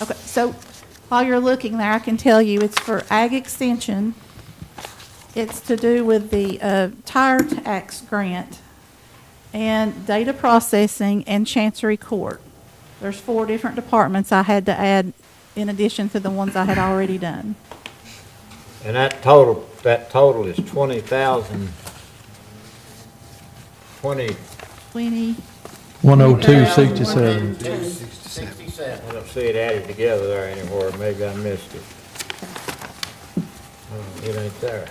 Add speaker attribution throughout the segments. Speaker 1: Okay, so while you're looking there, I can tell you it's for ag extension. It's to do with the uh, tire tax grant and data processing and chancery court. There's four different departments I had to add in addition to the ones I had already done.
Speaker 2: And that total, that total is twenty thousand, twenty,
Speaker 1: Twenty,
Speaker 3: 10267.
Speaker 2: I don't see it added together there anywhere, maybe I missed it. Oh, It ain't there.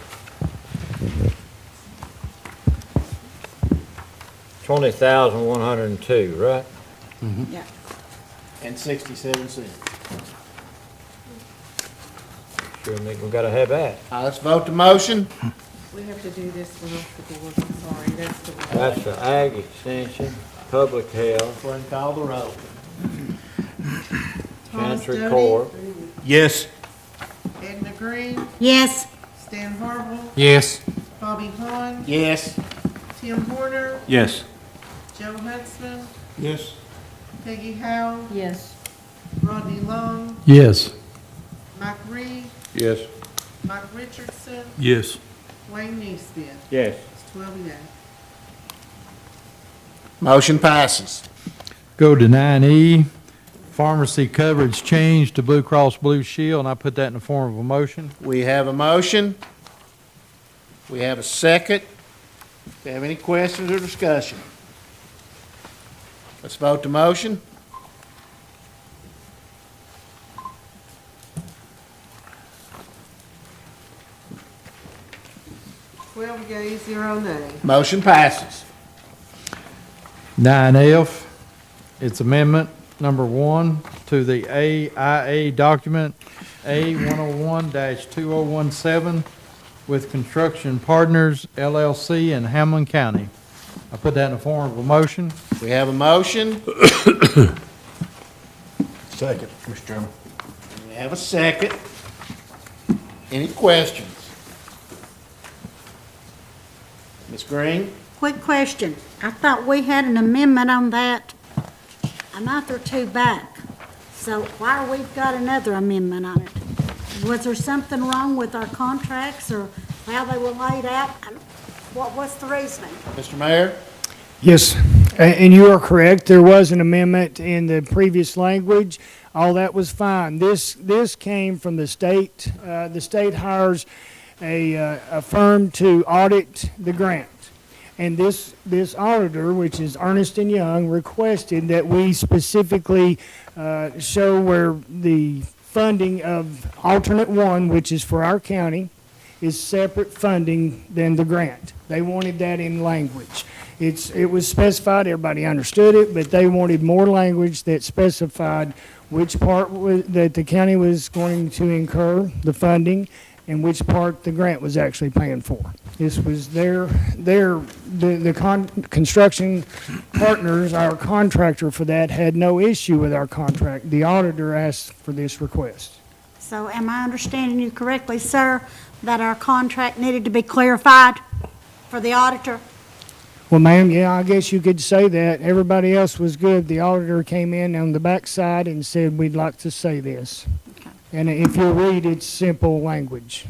Speaker 2: Twenty thousand, one hundred and two, right?
Speaker 4: Yeah.
Speaker 5: and sixty-seven cents.
Speaker 2: Sure, Nick, we gotta have that.
Speaker 5: All right, Uh, let's vote the motion.
Speaker 4: We have to do this one off the board, I'm sorry, that's the one.
Speaker 2: That's the ag extension, public health,
Speaker 5: Glenn, call the roll.
Speaker 4: Thomas
Speaker 2: chancery
Speaker 4: Doty,
Speaker 2: court.
Speaker 3: Yes.
Speaker 4: Edna Green,
Speaker 6: Yes.
Speaker 4: Stan Harble,
Speaker 3: Yes.
Speaker 4: Bobby Hahn,
Speaker 5: Yes.
Speaker 4: Tim Horner,
Speaker 3: Yes.
Speaker 4: Joe Huntsman,
Speaker 3: Yes.
Speaker 4: Peggy Howe,
Speaker 6: Yes.
Speaker 4: Rodney Long,
Speaker 3: Yes.
Speaker 4: Mike Reed,
Speaker 3: Yes.
Speaker 4: Mike Richardson,
Speaker 3: Yes.
Speaker 4: Wayne Neesmith.
Speaker 2: Yes.
Speaker 4: It's twelve yes.
Speaker 5: Motion passes.
Speaker 3: Go to nine E, pharmacy coverage change to Blue Cross Blue Shield, and I put that in the form of a motion.
Speaker 5: We have a motion. We have a second. Do you have any questions or discussion? Let's vote the motion.
Speaker 4: Twelve yeas, zero nays.
Speaker 5: Motion passes.
Speaker 3: Nine F, it's amendment number one to the AIA document A one oh one two oh one seven with Construction Partners LLC in Hamlin County. I put that in the form of a motion.
Speaker 5: We have a motion.
Speaker 7: Second, Mr. Chairman.
Speaker 5: We have a second. Any questions? Ms. Green?
Speaker 6: Quick question. I thought we had an amendment on that a month or two back. So why we've got another amendment on it? Was there something wrong with our contracts or how they were laid out? And What was the reasoning?
Speaker 5: Mr. Mayor?
Speaker 8: Yes, a- and you are correct. There was an amendment in the previous language. All that was fine. This, this came from the state. Uh, The state hires a, uh, a firm to audit the grant. And this, this auditor, which is Ernest and Young, requested that we specifically uh, show where the funding of alternate one, which is for our county, is separate funding than the grant. They wanted that in language. It's, it was specified, everybody understood it, but they wanted more language that specified which part was, that the county was going to incur the funding and which part the grant was actually paying for. This was their, their, the, the con, construction partners, our contractor for that, had no issue with our contract. The auditor asked for this request.
Speaker 6: So am I understanding you correctly, sir, that our contract needed to be clarified for the auditor?
Speaker 8: Well, ma'am, yeah, I guess you could say that. Everybody else was good. The auditor came in on the backside and said, we'd like to say this. And if you read, it's simple language.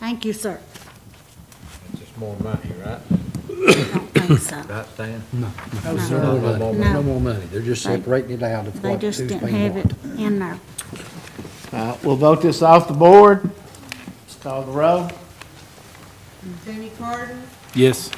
Speaker 6: Thank you, sir.
Speaker 2: It's just more money, right?
Speaker 6: I don't think so.
Speaker 2: Right, Stan?
Speaker 8: No,
Speaker 7: No more money.
Speaker 6: No.
Speaker 7: No more money, they're just separating it out of
Speaker 6: They
Speaker 7: what, who's
Speaker 6: just
Speaker 7: paying
Speaker 6: didn't
Speaker 7: what.
Speaker 6: have it in there.
Speaker 5: All right, we'll vote this off the board. Let's call the roll.
Speaker 4: Jamie Carden,
Speaker 3: Yes.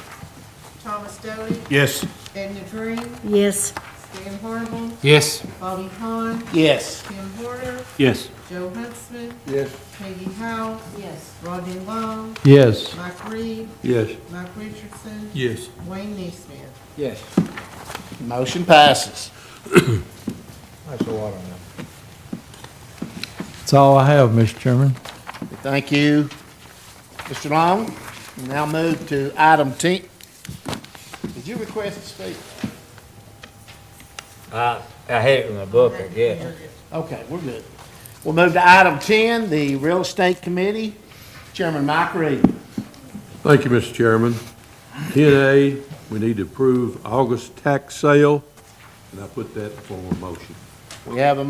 Speaker 4: Thomas Doty,
Speaker 3: Yes.
Speaker 4: Edna Green,
Speaker 6: Yes.
Speaker 4: Stan Harble,
Speaker 3: Yes.
Speaker 4: Bobby Hahn,
Speaker 5: Yes.
Speaker 4: Tim Horner,
Speaker 3: Yes.
Speaker 4: Joe Huntsman,
Speaker 7: Yes.
Speaker 4: Peggy Howe. Yes. Rodney Long,
Speaker 3: Yes.
Speaker 4: Mike Reed,
Speaker 7: Yes.
Speaker 4: Mike Richardson,
Speaker 3: Yes.
Speaker 4: Wayne Neesmith.
Speaker 2: Yes.
Speaker 5: Motion passes.
Speaker 2: That's a lot of money.
Speaker 3: That's all I have, Mr. Chairman.
Speaker 5: Thank you, Mr. Long. We Now move to item 10. Did you request to speak?
Speaker 2: I, I had it in my book, I guess.
Speaker 5: Okay, we're good. We'll move to item 10, the Real Estate Committee. Chairman Mike Reed.
Speaker 9: Thank you, Mr. Chairman. 10A, we need to approve August tax sale, and I put that in form of motion.
Speaker 5: We have a